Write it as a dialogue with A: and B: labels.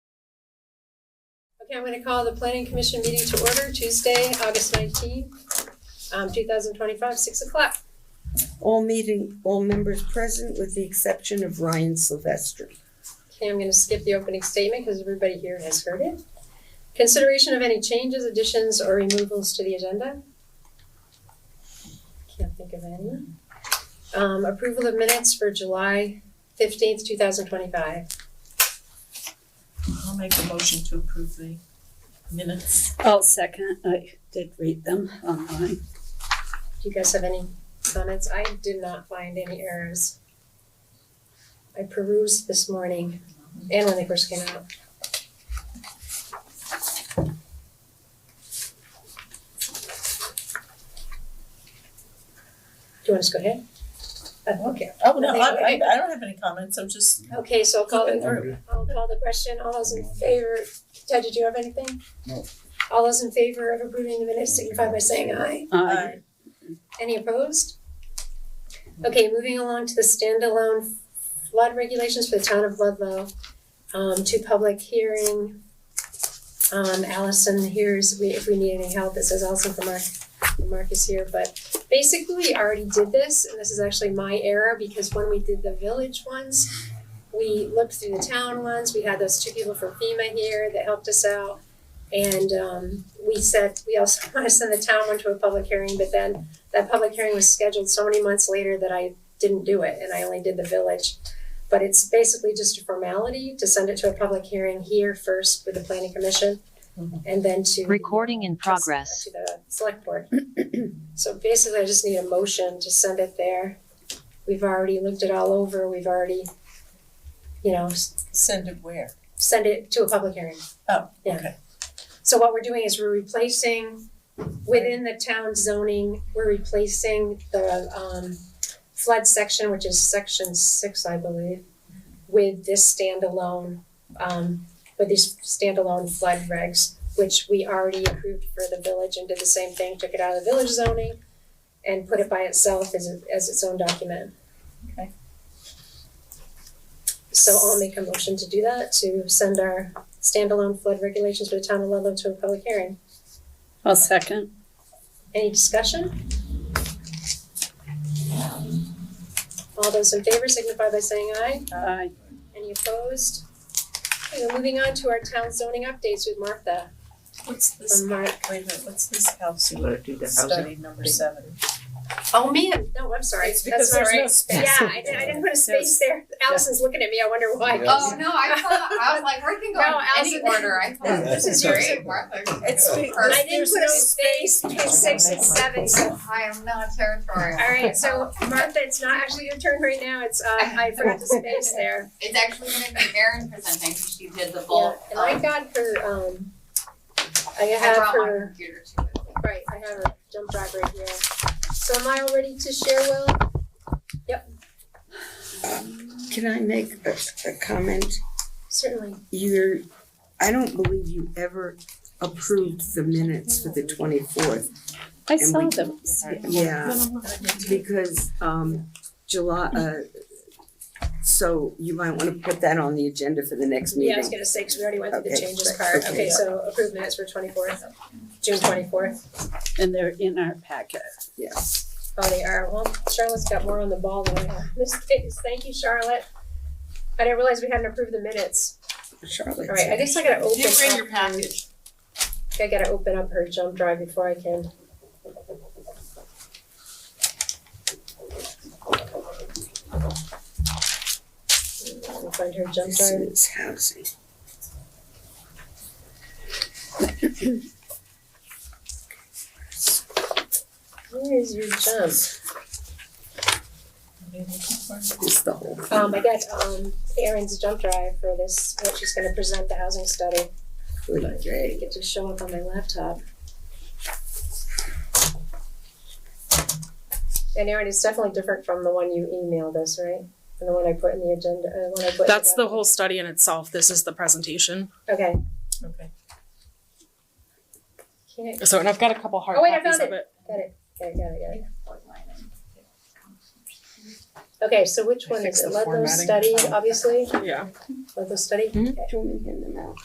A: Okay, I'm gonna call the planning commission meeting to order Tuesday, August nineteenth, um, two thousand twenty-five, six o'clock.
B: All meeting, all members present with the exception of Ryan Silvestri.
A: Okay, I'm gonna skip the opening statement because everybody here has heard it. Consideration of any changes, additions, or removals to the agenda? Can't think of any. Um, approval of minutes for July fifteenth, two thousand twenty-five.
C: I'll make a motion to approve the minutes.
D: I'll second, I did read them online.
A: Do you guys have any comments? I did not find any errors. I perused this morning and when they first came out. Do you want us to go ahead? Uh, Okay,
C: Oh, no, I, I, I don't have any comments, I'm just
A: okay, so I'll call
C: flipping
A: the,
C: through.
A: I'll call the question. All those in favor, Ted, did you have anything?
E: No.
A: All those in favor of approving the minutes signify by saying aye.
C: Uh,
D: I
A: Any opposed? Okay, moving along to the standalone flood regulations for the town of Ludlow, um, to public hearing. Um, Allison, here's, we, if we need any help, this is also for Mark, for Marcus here, but basically, we already did this, and this is actually my error, because when we did the village ones, we looked through the town ones, we had those two people from FEMA here that helped us out. And, um, we said, we also wanna send the town one to a public hearing, but then that public hearing was scheduled so many months later that I didn't do it and I only did the village. But it's basically just a formality to send it to a public hearing here first with the planning commission and then to.
F: Recording in progress.
A: To the select board. So basically, I just need a motion to send it there. We've already looked it all over, we've already, you know, s-
C: send it where?
A: send it to a public hearing.
C: Oh,
A: Yeah.
C: okay.
A: So what we're doing is we're replacing, within the town zoning, we're replacing the um flood section, which is section six, I believe, with this standalone, um, with these standalone flood regs, which we already approved for the village and did the same thing, took it out of the village zoning and put it by itself as a- as its own document.
C: Okay.
A: So I'll make a motion to do that, to send our standalone flood regulations for the town of Ludlow to a public hearing.
D: I'll second.
A: Any discussion? All those in favor signify by saying aye.
D: I
A: Any opposed? Okay, we're moving on to our town zoning updates with Martha.
C: What's this,
A: From Mark.
C: wait a minute, what's this house
G: You wanna do the housing?
C: study number seven?
A: Oh, man, no, I'm sorry.
C: It's because
A: That's all
C: there's no
A: right.
C: space.
A: Yeah, I didn't, I didn't put a space there. Allison's looking at me, I wonder why. Um,
E: Yes.
H: Oh no, I thought I was like, we can go
A: No,
H: in any
A: Allison-
H: order. I thought
E: This
H: this
E: is
H: is
E: yours.
H: great, Martha.
C: It's be-
H: Or-
A: I didn't
C: there's
A: put
C: no
A: a space between six and seven, so,
H: I am not territorial.
A: all right, so Martha, it's not actually your turn right now, it's, uh, I forgot the space there.
H: It's actually gonna be Erin presenting, because she did the
A: Yeah,
H: bulk.
A: and I
H: um,
A: got her, um, I
H: I
A: have
H: brought my
A: her,
H: computer to it.
A: right, I have her jump drive right here. So am I all ready to share, Will?
B: Can I make a, a comment?
A: Certainly.
B: You're, I don't believe you ever approved the minutes for the twenty-fourth.
D: I saw them.
B: Yeah, because, um, July, uh, so you might wanna put that on the agenda for the next
A: Yeah, I was
B: meeting.
A: gonna say, cause we already went through the
B: Okay,
A: changes
B: right,
A: part.
B: okay.
A: Okay, so approved minutes for twenty-fourth, June twenty-fourth.
D: And they're in our packet.
B: Yes.
A: Oh, they are. Well, Charlotte's got more on the ball than I have. This is, thank you, Charlotte. I didn't realize we hadn't approved the minutes.
B: Charlotte.
A: All right, I guess I gotta open
C: You bring your
A: up,
C: package.
A: I gotta open up her jump drive before I can. Let me Find her jump
B: This
A: drive.
B: is housing.
A: Where is your jump?
B: This is the whole.
A: Um, I got, um, Erin's jump drive for this, what she's gonna present the housing study. I
B: Okay.
A: think it just show up on my laptop. And Erin, it's definitely different from the one you emailed us, right? And the one I put in the agenda, uh, one I put. in
I: That's the whole study in itself. This is the presentation.
A: Okay.
C: Okay.
A: Can't,
I: So, and I've got a couple hard
A: Oh, wait, I
I: copies of
A: found
I: it.
A: got it, got it, got it, got it. Okay, so which
I: I
A: one is
I: fixed
A: it?
I: the
A: Ludlow
I: formatting.
A: study, obviously,
I: Yeah.
A: Ludlow study?
I: Mm-hmm.
B: Do you want me to hand them out?